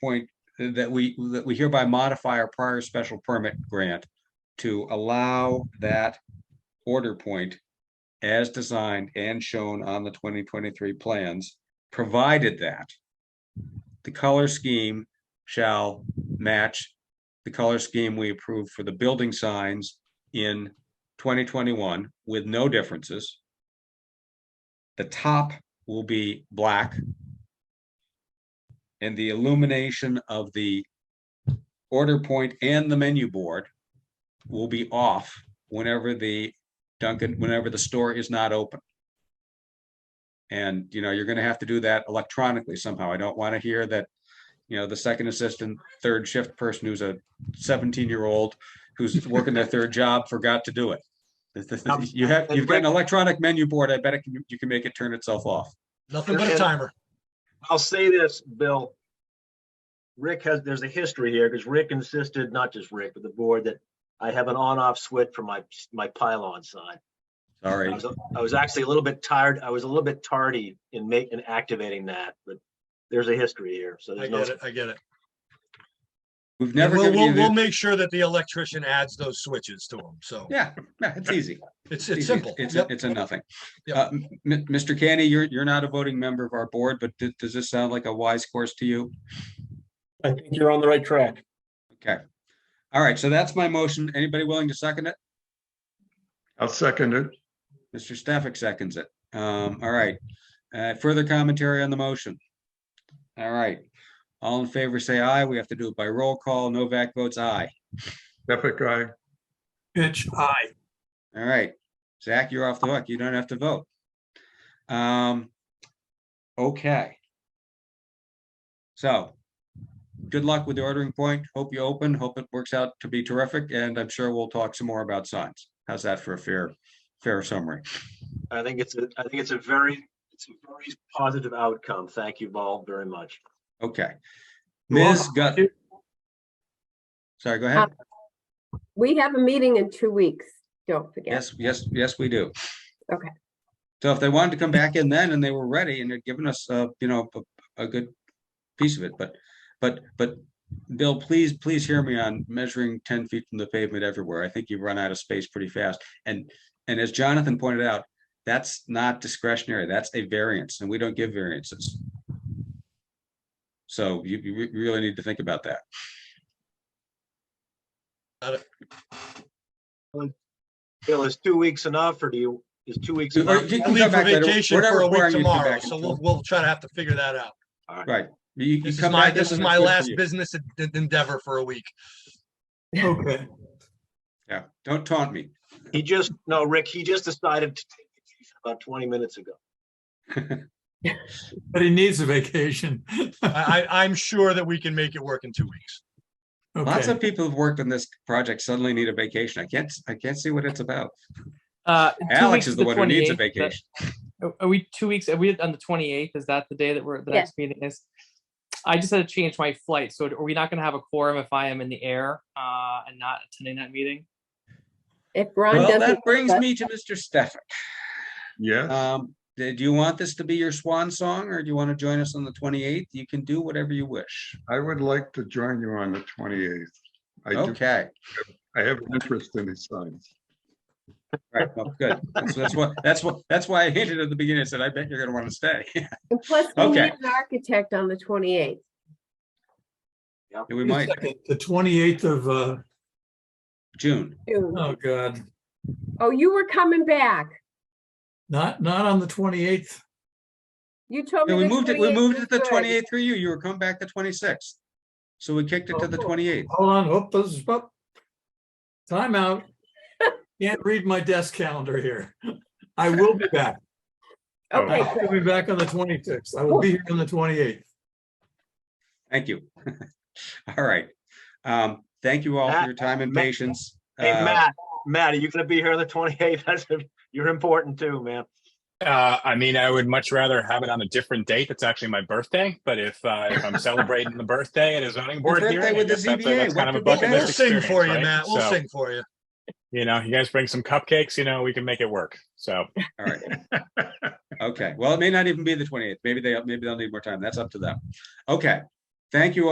point that we, that we hereby modify our prior special permit grant to allow that order point as designed and shown on the twenty twenty-three plans, provided that the color scheme shall match the color scheme we approved for the building signs in twenty twenty-one with no differences. The top will be black. And the illumination of the order point and the menu board will be off whenever the Dunkin', whenever the store is not open. And, you know, you're gonna have to do that electronically somehow. I don't wanna hear that, you know, the second assistant, third shift person who's a seventeen-year-old who's working their third job forgot to do it. Um, You have, but you've got an Rick- electronic menu board. I bet it can, you can make it turn itself off. Nothing but a timer. I'll say this, Bill. Rick has, there's a history here because Rick insisted, not just Rick, but the board that I have an on-off switch for my, my pylon sign. I Sorry. was, I was actually a little bit tired. I was a little bit tardy in making, in activating that, but there's a history here. So I there's no, get it, I get it. We've And never We'll, given you we'll, we'll the, make sure that the electrician adds those switches to them, so yeah, yeah, it's easy. it's, it's easy. simple. It's, a- Yep. it's a nothing. Yep. Uh, m- m- Mr. Canny, you're, you're not a voting member of our board, but th- does this sound like a wise course to you? I think you're on the right track. Okay. All right, so that's my motion. Anybody willing to second it? I'll second it. Mr. Stafford seconds it. Um, all right. Uh, further commentary on the motion? All right. All in favor, say aye. We have to do it by roll call. Novak votes aye. Epic guy. Pitch high. All right, Zach, you're off the hook. You don't have to vote. Um, okay. So, good luck with the ordering point. Hope you open. Hope it works out to be terrific, and I'm sure we'll talk some more about signs. How's that for a fair, fair summary? I think it's, a. I think it's a very, it's a very positive outcome. Thank you all very much. Okay. Well, Ms. Gut. Sorry, go ahead. Um, We have a meeting in two weeks, don't forget. Yes, yes, yes, we do. Okay. So if they wanted to come back in then and they were ready and had given us, uh, you know, a, a good piece of it, but, but, but Bill, please, please hear me on measuring ten feet from the pavement everywhere. I think you run out of space pretty fast. And, and as Jonathan pointed out, that's not discretionary. That's a variance and we don't give variances. So you, you re- really need to think about that. Bill, is two weeks enough or do you, is two weeks Or enough? you I can come leave for back later. vacation We're not for a week requiring you to come tomorrow, back so until- we'll, we'll try to have to figure that out. Right. You- you This is come my, back in this is and my it's good for last you. business en- endeavor for a week. Okay. Yeah, don't taunt me. He just, no, Rick, he just decided to take vacation about twenty minutes ago. But he needs a vacation. I, I, I'm sure that we can make it work in two weeks. Lots Okay, of people who've worked on this project suddenly need a vacation. I can't, I can't see what it's about. Uh, two Alex weeks is the one who needs a 28th, but- vacation. Are- Are we two weeks? Are we on the twenty eighth? Is that the day that we're, the Yeah. next meeting is? I just had to change my flight, so are we not gonna have a quorum if I am in the air, uh, and not attending that meeting? If Ron Well, that doesn't, brings but- me to Mr. Stefan. Yes. Um, do do you want this to be your swan song or do you want to join us on the twenty-eighth? You can do whatever you wish. I would like to join you on the 28th. I do, Okay, I have an interest in these signs. right, well, good. That's that's what, that's what, that's why I hinted at the beginning. I said, I bet you're gonna want to stay. and plus we need Okay. an architect on the twenty-eighth. We might, the twenty-eighth of, uh, June. oh God, Oh, you were coming back. not, not on the twenty-eighth. You told me. Yeah, we the moved it, we 28th moved was it to the good. twenty-eighth for you. You were come back the twenty-sixth. So we kicked it to the Oh. twenty-eighth. Hold on, whoop, this is, whoop. Timeout. Can't read my desk calendar here. I will be back. Okay, I will be back on the twenty-sixth. I will be here on the twenty-eighth. Thank you. All right. Um, thank you all for Matt- your time and Matt- patience. Hey, Uh, Matt, Matt, are you gonna be here on the twenty-eighth? That's, you're important too, man. Uh, I mean, I would much rather have it on a different date. That's actually my birthday. But if uh, if I'm celebrating the birthday at a zoning board birthday hearing, I with the guess that's, a- ZBA, that's kind what of a could be bucket We'll list better? sing for you, experience, right? Matt. We'll So, sing for you. You know, you guys bring some cupcakes. You know, we can make it work. So All right. Okay, well, it may not even be the twenty-eighth. Maybe they, maybe they'll need more time. That's up to them. Okay. Thank you all.